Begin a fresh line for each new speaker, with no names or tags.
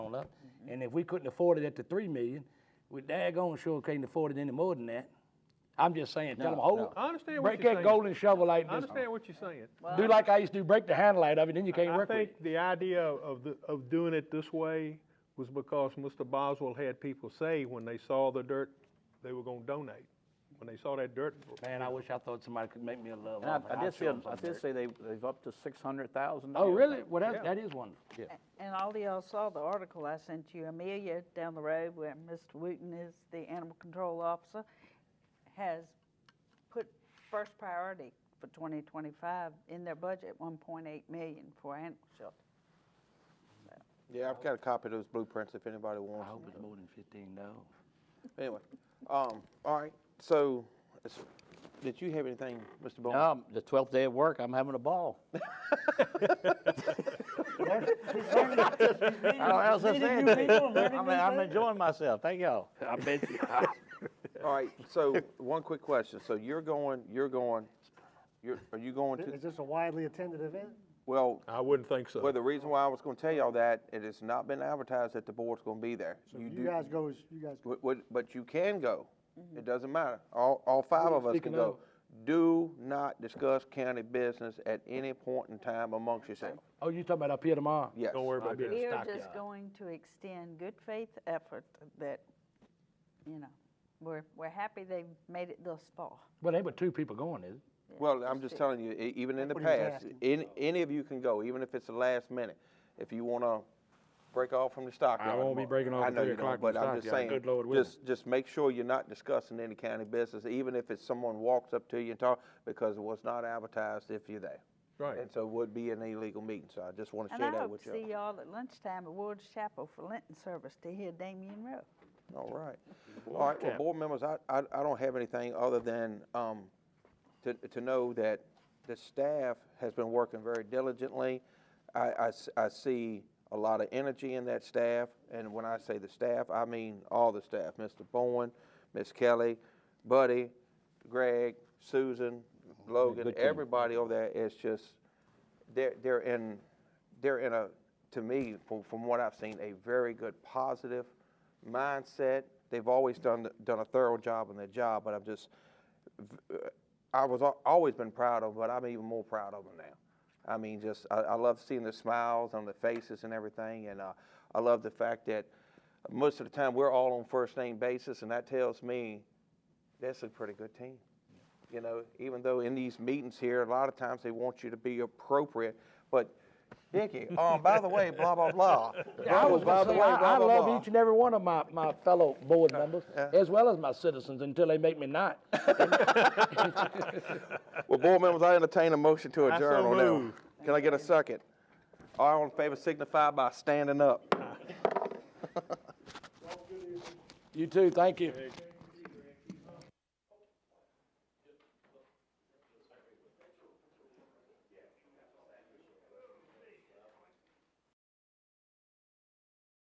on up. And if we couldn't afford it at the three million, we daggone sure can't afford it any more than that. I'm just saying, tell them,
No,
hold,
no.
I understand what
break
you're
that
saying.
golden shovel like
I
this.
understand what you're saying.
Do like I used to do, break the handle out of it, then you can't
I
work with it.
think the idea of, the- of doing it this way was because Mr. Boswell had people say when they saw the dirt, they were gonna donate. When they saw that dirt,
Man, I wish I thought somebody could make me a love
And I,
offer.
I
I'd
did
show
see,
'em
a- I
some
did
dirt.
see they, they've up to six hundred thousand
Oh,
dollars.
really? Well, that,
Yeah.
that is wonderful. Yeah.
And all y'all saw the article I sent you, Amelia down the road where Mr. Wooten is the animal control officer, has put first priority for twenty twenty-five in their budget, one point eight million for animal shelter.
Yeah, I've got a copy of those blueprints if anybody
I
wants.
hope it's more than fifteen dollars.
Anyway, um, all right, so, it's- did you have anything, Mr. Bowman?
Um, the twelfth day of work, I'm having a ball. I don't know what else to say. I'm, I'm enjoying myself, thank y'all.
I bet you.
All right, so, one quick question, so you're going, you're going, you're, are you going to,
Is this a widely attended event?
well,
I wouldn't think Uh, so.
well, the reason why I was gonna tell y'all that, it has not been advertised that the board's gonna be there.
So you
do-
guys goes, you guys, go.
But, but- but you can go. It doesn't matter. All, all five of us can
Speaking
go.
of-
Do not discuss county business at any point in time amongst yourselves.
Oh, you talking about up here tomorrow?
Yes.
Don't worry about
be-
that.
We are
Stockyard.
just going to extend good faith effort that, you know, we're, we're happy they made it thus far.
Well, there were two people going, is it?
Well, I'm just telling you, e- even in the
That's what he was
past,
asking.
any, any of you can go, even if it's the last minute. If you wanna break off from the stockyard.
won't be
tomorrow.
breaking off
I
at
know
three
you don't,
o'clock in
but
the
I'm just
stockyard.
saying,
Good Lord willing.
Just, just make sure you're not discussing any county business, even if it's someone walks up to you and talk, because it was not advertised if you're there.
Right.
And so it would be an illegal meeting, so I just wanna
And
share
I
that
hope
with
to
you.
see y'all at lunchtime at Ward's Chapel for Lenten service to hear Damien Rowe.
All right. All right, well, board members, I, I, I don't have anything other than, um, to, to know that the staff has been working very diligently. I, I s- I see a lot of energy in that staff, and when I say the staff, I mean all the staff, Mr. Bowen, Ms. Kelly, Buddy, Greg, Susan, Logan, everybody over there is just, they're, they're in, they're in a, to me, from, from what I've seen, a very good positive mindset. They've always done, the- done a thorough job on their job, but I'm just, I was al- always been proud of, but I'm even more proud of them now. I mean, just I, I love seeing the smiles on the faces and everything, and uh, I love the fact that most of the time we're all on first name basis, and that tells me that's a pretty good team. You know, even though in these meetings here, a lot of times they want you to be appropriate, but Dickie, um, by the way, blah blah blah.
I
Bubba,
was
by
about
the
to
way,
say, I, I
blah blah
love
blah.
each and every one of my, my fellow board members, as well as my citizens, until they make me not.
Well, board members, I entertain a motion to
I so
adjourn on that one.
move.
Can I get a second? All in favor signify by standing up.
You too, thank you.